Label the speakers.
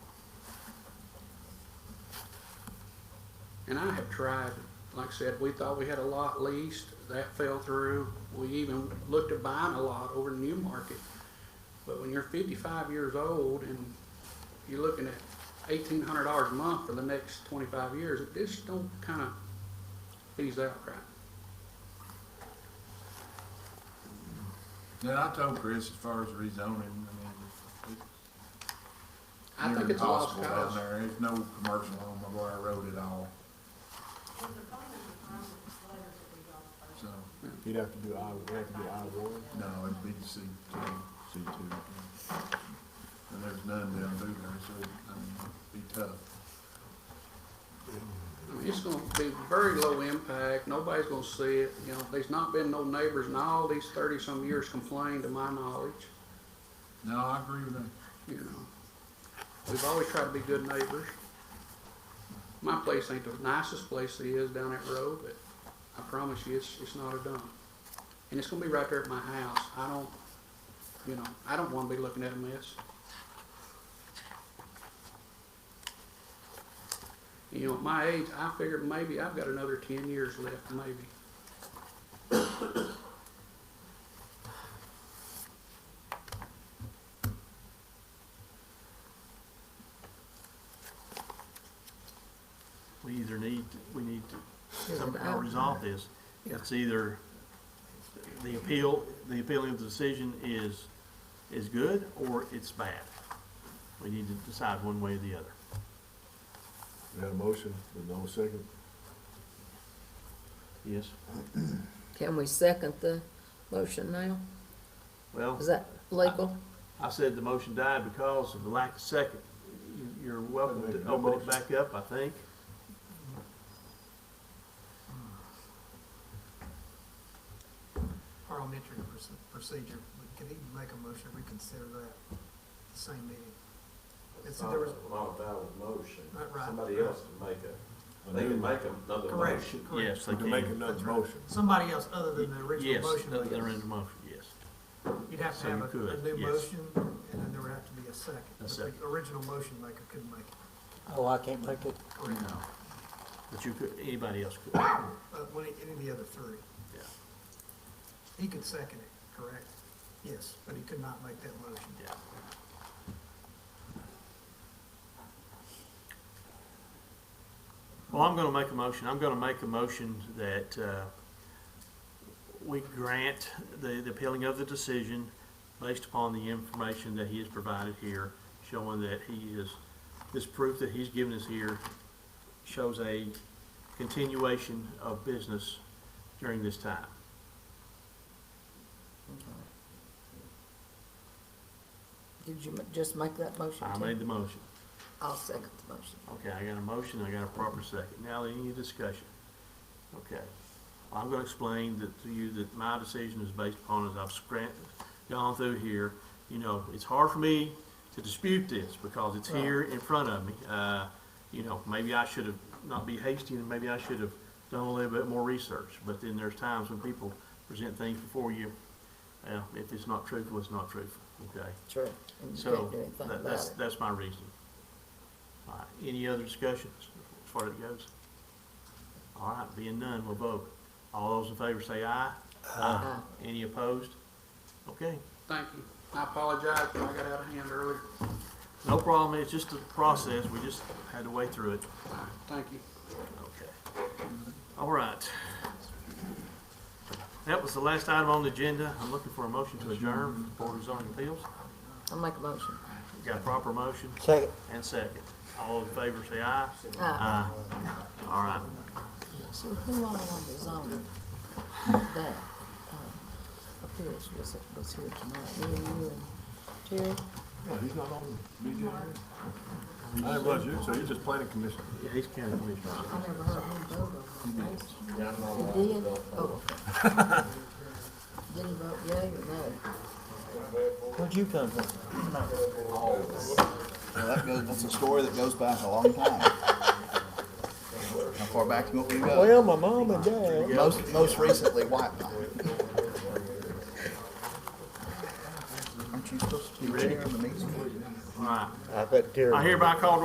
Speaker 1: And I have tried, like I said, we thought we had a lot leased, that fell through. We even looked at buying a lot over in Newmarket. But when you're fifty-five years old and you're looking at eighteen hundred dollars a month for the next twenty-five years, it just don't kind of ease out right.
Speaker 2: Then I told Chris, as far as rezoning, I mean, it's
Speaker 1: I
Speaker 2: near
Speaker 1: think it's a lost
Speaker 2: impossible down
Speaker 1: cause.
Speaker 2: there. There's no commercial on McGuire Road at all, so,
Speaker 3: You'd have to do I, we'd have to do I one.
Speaker 2: no, it'd be C two. C two. And there's none down through there, so, it- I mean, it'd be tough.
Speaker 1: I mean, it's gonna be very low impact, nobody's gonna see it, you know, there's not been no neighbors in all these thirty-some years complained, to my knowledge,
Speaker 2: No, I agree with that.
Speaker 1: you know. We've always tried to be good neighbors. My place ain't the nicest place it is down that road, but I promise you, it's, it's not a dump. And it's gonna be right there at my house, I don't, you know, I don't wanna be looking at a mess. You know, at my age, I figured maybe I've got another ten years left, maybe.
Speaker 4: We either need, we need to somehow resolve this. It's either the appeal, the appealing of the decision is, is good or it's bad. We need to decide one way or the other.
Speaker 3: We had a motion, but no second.
Speaker 4: Yes.
Speaker 5: Can we second the motion now?
Speaker 4: Well,
Speaker 5: Is that legal?
Speaker 4: I said the motion died because of the lack of second. You- You're welcome to open it back up, I think.
Speaker 6: parliamentary proce- procedure, we could even make a motion to reconsider that, the same meeting. And so
Speaker 7: Not
Speaker 6: there was,
Speaker 7: not a valid motion.
Speaker 6: Not right.
Speaker 7: Somebody else can make a, they can make another
Speaker 6: correct,
Speaker 7: motion.
Speaker 6: correct.
Speaker 4: they
Speaker 3: We can make another
Speaker 6: That's right.
Speaker 3: motion.
Speaker 6: Somebody else other than the
Speaker 4: Yes,
Speaker 6: original motion,
Speaker 4: they're in the
Speaker 6: would-
Speaker 4: motion, yes.
Speaker 6: you'd have
Speaker 4: so
Speaker 6: to
Speaker 4: you
Speaker 6: have a, a
Speaker 4: could,
Speaker 6: new
Speaker 4: yes.
Speaker 6: motion, and then there would have to be a second. But the
Speaker 4: second.
Speaker 6: original motion maker couldn't make it,
Speaker 8: Oh, I can't make it.
Speaker 6: correct,
Speaker 4: But you could, anybody else could, yeah.
Speaker 6: but one, Uh, any of the other three, he could second it, correct? Yes, but he could not make that motion.
Speaker 4: Yeah. Well, I'm gonna make a motion, I'm gonna make a motion that, uh, we grant the, the appealing of the decision based upon the information that he has provided here, showing that he is, this proof that he's given us here shows a continuation of business during this time.
Speaker 5: Did you ma- just make that motion?
Speaker 4: I
Speaker 5: too?
Speaker 4: made the motion.
Speaker 5: I'll second the motion.
Speaker 4: Okay, I got a motion, I got a proper second. Now, any discussion? Okay. I'm gonna explain that to you that my decision is based upon, as I've scran- gone through here, you know, it's hard for me to dispute this because it's here in front of me. Uh, you know, maybe I should have not be hasty and maybe I should have done a little bit more research. But then there's times when people present things before you, uh, if it's not truthful, it's not truthful, okay?
Speaker 5: True. And you
Speaker 4: So,
Speaker 5: can't do anything
Speaker 4: that-
Speaker 5: about
Speaker 4: that's,
Speaker 5: it.
Speaker 4: that's my reason. All right, any other discussions as far as it goes? All right, being none, we'll vote. All those in favor say aye.
Speaker 5: Aye.
Speaker 4: Any opposed? Okay,
Speaker 1: Thank you, I apologize when I got out of hand earlier,
Speaker 4: no problem, it's just a process, we just had to wade through it.
Speaker 1: All right, thank you.
Speaker 4: Okay. All right. That was the last item on the agenda. I'm looking for a motion to adjourn the Board of Zoning Appeals.
Speaker 5: I'll make a motion.
Speaker 4: Got a proper motion
Speaker 8: Second.
Speaker 4: and second. All in favor say aye.
Speaker 5: Aye.
Speaker 4: Aye. All right.
Speaker 5: Ah, So who all on the zone that, uh, appeals was, was here tonight? Me and you and Terry?
Speaker 3: No, he's not on the meeting. I didn't budget, so he's just planning commission.
Speaker 4: Yeah, he's county commissioner.
Speaker 5: I never heard him vote on that. He did? Oh. Did he vote yea or no?
Speaker 8: Where'd you come from? Well, that goes, that's a story that goes back a long time. How far back do you want me to go?
Speaker 9: Well, my mom and dad.
Speaker 8: Most, most recently, white pine. Aren't you supposed to be chairing the meeting?
Speaker 4: All right.
Speaker 9: I bet Terry.
Speaker 4: I hereby call